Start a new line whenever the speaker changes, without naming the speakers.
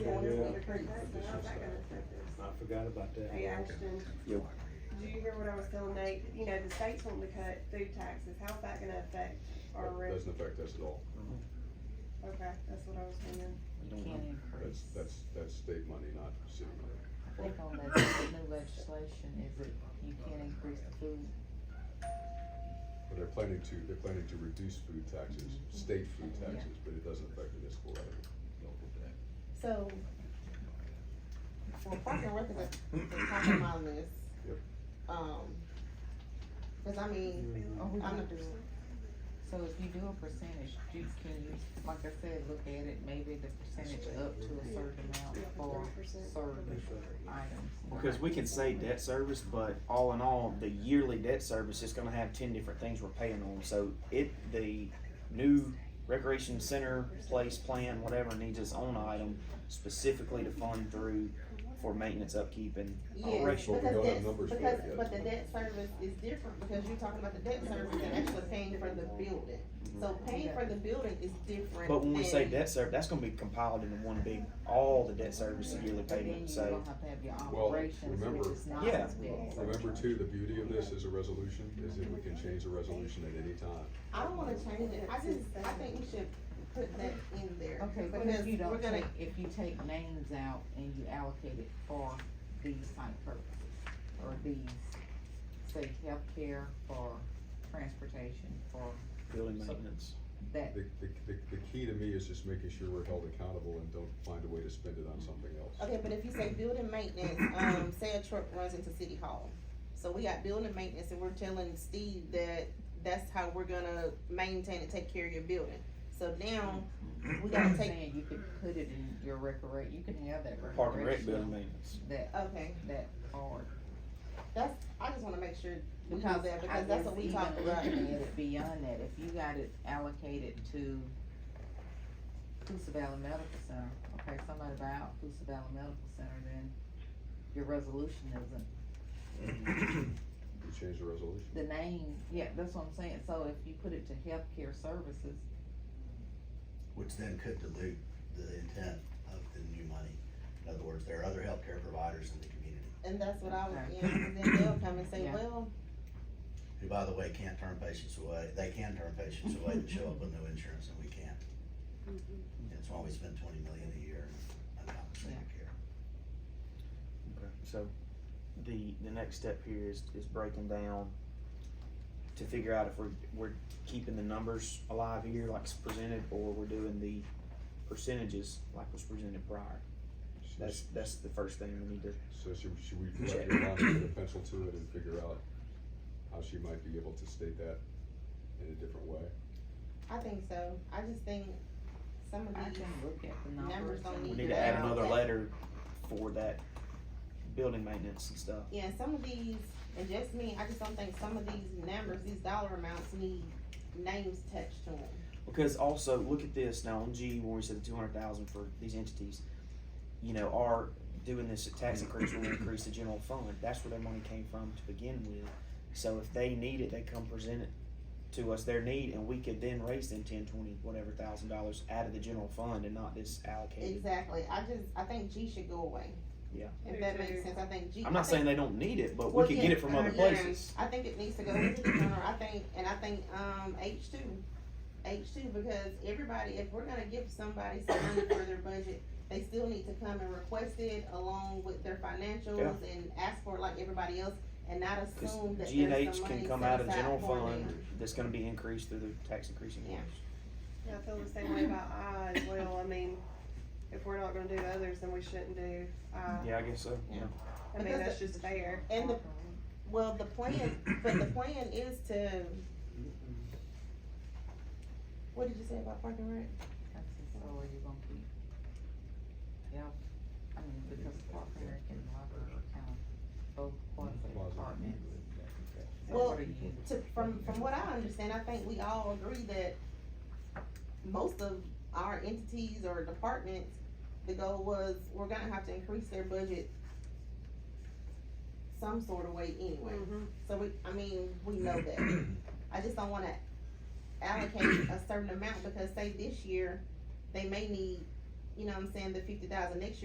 return taxes, all that kind of stuff is.
I forgot about that.
Hey Ashton,
Yep.
do you hear what I was telling Nate? You know, the state's wanting to cut food taxes, how's that gonna affect our
That
rent?
Doesn't affect us at all.
Okay, that's what I was wondering.
I
Can't
don't know.
That's,
increase.
that's, that's state money, not city money.
I think on that new legislation is that you can't increase the food.
But they're planning to, they're planning to reduce food taxes, state food taxes, but it doesn't affect the municipal levy.
So, well, parking and Rec is at the top of my list.
Yep.
Um, cause I mean,
Are we
I'm
gonna-
not doing,
So if you do a percentage, you can you, like I said, look at it, maybe the percentage up to a certain amount
Yeah,
for
thirty percent.
certain items.
Because we can say debt service, but all in all, the yearly debt service is gonna have ten different things we're paying on, so it, the new recreation center, place, plan, whatever, needs its own item specifically to fund through for maintenance, upkeep, and
yeah, because
operational.
But we don't have
that's,
numbers for
because,
it yet.
but the debt service is different, because you're talking about the debt service and actually paying for the building. So paying for the building is different
Mm-hmm. But when we say
than-
debt service, that's gonna be compiled into one big, all the debt service and yearly
But then
payment,
you're
so.
gonna have to have your
Well,
operations,
remember-
which is not
Yeah.
as big.
Remember too, the beauty of this is a resolution, is that we can change the resolution at any time.
I don't wanna change it, I just, I think we should put that in there.
Okay, but
because
if you
we're
don't
gonna-
take, if you take names out and you allocate it for these type purposes, or these, say healthcare, for transportation, for
Building maintenance.
that,
The, the, the, the key to me is just making sure we're held accountable and don't find a way to spend it on something else.
Okay, but if you say building maintenance, um, say a truck runs into city hall. So we got building maintenance and we're telling Steve that that's how we're gonna maintain and take care of your building. So now, we
I'm
gotta take,
saying you could put it in your recre, you can have that
Park and rec building
recreational,
maintenance.
that,
okay,
that part.
that's, I just wanna make sure we do
Because
that,
I
because that's
guess
what we
even
talked about.
looking at it beyond that, if you got it allocated to Coosa Valley Medical Center, okay, somebody buy out Coosa Valley Medical Center, then your resolution isn't,
We change the resolution.
the name, yeah, that's what I'm saying, so if you put it to healthcare services,
which then could dilute the intent of the new money. In other words, there are other healthcare providers in the community,
And that's what I was,
Okay.
yeah, and then they'll come and say,
Yeah.
well,
who by the way can't turn patients away, they can turn patients away that show up with no insurance and we can't. That's why we spend twenty million a year on outpatient care.
So, the, the next step here is, is breaking down to figure out if we're, we're keeping the numbers alive here like it's presented, or we're doing the percentages like was presented prior. That's, that's the first thing we need to,
So should, should we let Yolanda get a pencil to it and figure out how she might be able to state that in a different way?
I think so, I just think some
I
of these,
can look at the numbers.
Numbers don't
and-
we
need
need to add another letter for that building maintenance and stuff.
yeah, some of these, and just me, I just don't think some of these numbers, these dollar amounts need names touched to them.
Because also, look at this now on G when we said the two hundred thousand for these entities, you know, are doing this tax increase will increase the general fund. That's where their money came from to begin with. So if they need it, they come present it to us their need, and we could then raise them ten, twenty, whatever thousand dollars out of the general fund and not this allocated.
Exactly, I just, I think G should go away.
Yeah.
If that makes sense, I think G.
I'm not
I think-
saying they don't need it, but we
Well,
could
yeah,
get it from other
yeah.
places.
I think it needs to go into the general, I think, and I think, um, H two, H two, because everybody, if we're gonna give somebody some money for their budget, they still need to come and request it along with their financials and ask for it like everybody else, and not
Cause
assume that
G and
there's
H
some
can
money
come
set
out of the
aside
general
for
fund
them.
that's gonna be increased through the tax increasing.
Yeah.
Yeah, I feel the same way about I as well, I mean, if we're not gonna do others, then we shouldn't do I,
Yeah, I guess so, yeah.
I mean,
Because
that's just fair.
And the, well, the plan, but the plan is to, what did you say about parking and Rec?
That's just so are you gonna keep? Yeah, I mean, because Park and Rec and library are kind of both quasi departments. So
Well,
what do you-
to, from, from what I understand, I think we all agree that most of our entities or departments, the goal was, we're gonna have to increase their budget some sort of way anyway.
Mhm.
So we, I mean, we know that. I just don't wanna allocate a certain amount, because say this year, they may need, you know what I'm saying, the fifty thousand, next year